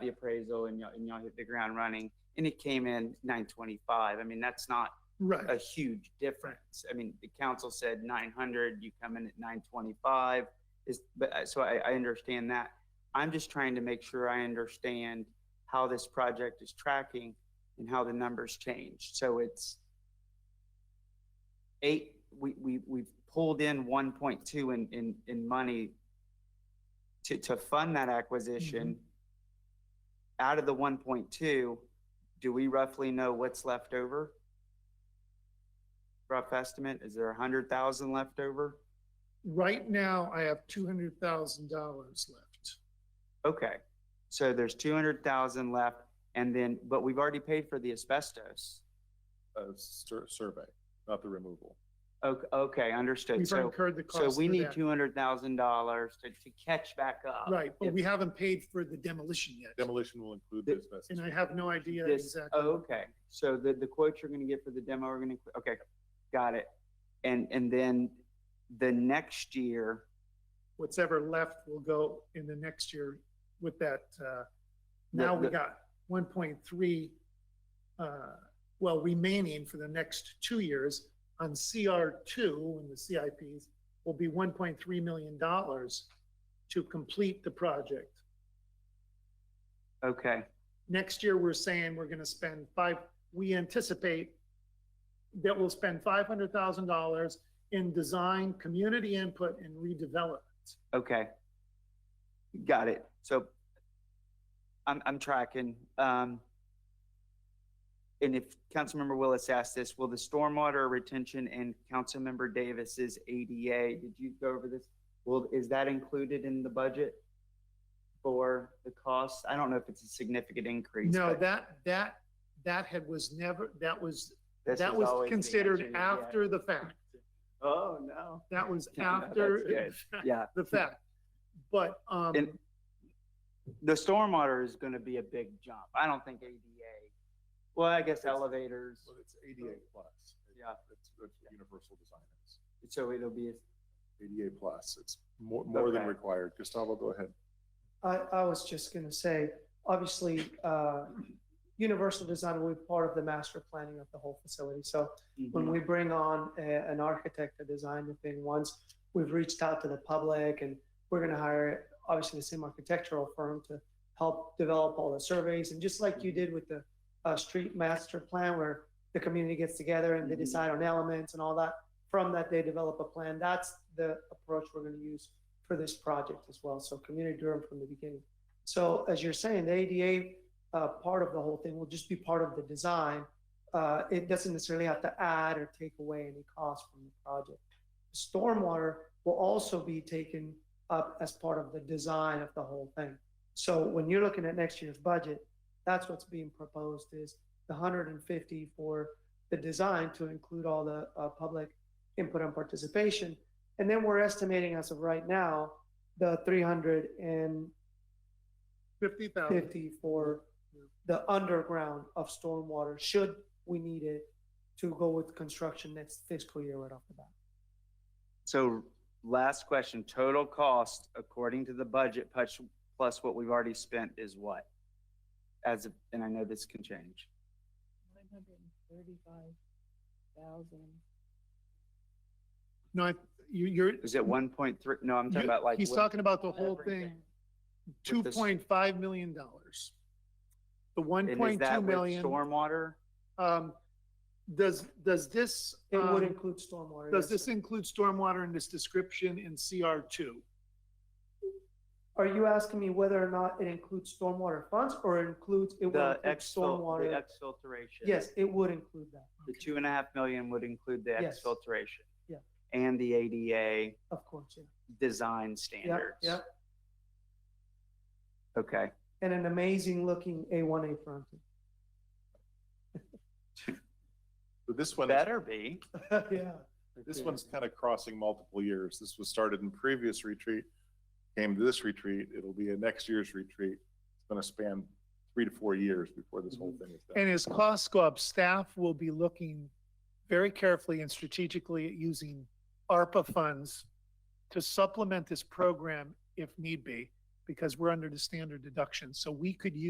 the appraisal and y'all, and y'all hit the ground running and it came in nine twenty-five. I mean, that's not a Uh, Right, huge difference. I mean, the council said nine hundred, you come in at nine twenty-five. Is, but, uh, so I, I understand that. I'm just trying to make sure I understand how this project is tracking and how the numbers change. So it's eight, we, we, we've pulled in one point two in, in, in money to, to fund that acquisition. Out of the one point two, do we roughly know what's left over? Rough estimate, is there a hundred thousand left over? right now I have two hundred thousand dollars left. Okay, so there's two hundred thousand left and then, but we've already paid for the asbestos. uh, sur- survey, not the removal. Okay, okay, understood. We've So, incurred the cost so of we need uh, that. two hundred thousand dollars to, to catch back up. Right, but if- we haven't paid for the demolition yet, Demolition will include The- this asbestos. and I have no idea This, exactly. oh, okay, so the, the quote you're gonna get for the demo are gonna, okay, got it. And, and then the next year, What's ever left will go in the next year with that, uh, now we the- got one point three, uh, well, remaining for the next two years on CR two and the CIPs will be one point three million dollars to complete the project. okay, Next year, we're saying we're gonna spend five, we anticipate that we'll spend five hundred thousand dollars in design, community input and redevelop. okay. Got it, so I'm, I'm tracking, um. And if Councilmember Willis asked this, will the stormwater retention and Councilmember Davis's ADA, did you go over this? Will, is that included in the budget? For the cost? I don't know if it's a significant increase. No, but that, that, that had, was never, that was, this that is was always the considered answer, yeah. after the fact. Oh, no. That was No, that's after good. Yeah, the fact. But, um, And- the stormwater is gonna be a big jump. I don't think ADA, well, I guess It's- elevators, Well, It's ADA plus. Yeah. That's, that's what universal design is. so it'll be, ADA plus, it's more, more than Okay. required. Gustavo, go ahead. I, I was just going to say, obviously, uh, universal design will be part of the master planning of the whole facility. So mm-hmm. when we bring on a, an architect to design the thing, once we've reached out to the public and we're going to hire, obviously, the same architectural firm to help develop all the surveys. And just like you did with the uh, street master plan, where the community gets together and they Mhm. decide on elements and all that, from that, they develop a plan. That's the approach we're going to use for this project as well. So community driven from the beginning. So as you're saying, the ADA uh, part of the whole thing will just be part of the design. Uh, it doesn't necessarily have to add or take away any cost from the project. Stormwater will also be taken up as part of the design of the whole thing. So when you're looking at next year's budget, that's what's being proposed is the 150 for the design to include all the uh, public input and participation. And then we're estimating as of right now, the 350 fifty thousand, for the underground of stormwater, should we need it to go with construction next fiscal year right off the bat. So last question, total cost according to the budget plus, plus what we've already spent is what? As, of- and I know this can change. Nine hundred and thirty-five thousand. no, I- you, you're, Is Mm-hmm. it one point three? No, I'm talking You- about like. He's what- talking about the whole thing, everything. two With this- point five million dollars. The one and is point two that with million, Stormwater? um, does, does this, It would um, include stormwater. does yes, this sir. include stormwater in this description in CR two? Are you asking me whether or not it includes stormwater funds or includes, it will The include exfil, the stormwater? exfiltration. Yes, it would include that, The two and a half million would include the Yes. exfiltration. Yeah. And the ADA of course, yeah. design Yeah, standards. yeah. Okay, And an amazing looking A1A frontage. So This one, better be. Yeah. this one's kind of crossing multiple years. This was started in previous retreat, came to this retreat, it'll be a next year's retreat. It's going to span three to four years before this Mm-hmm. whole thing is done. And as costs go up, staff will be looking very carefully and strategically at using ARPA funds to supplement this program if need be, because we're under the standard deduction. So we could use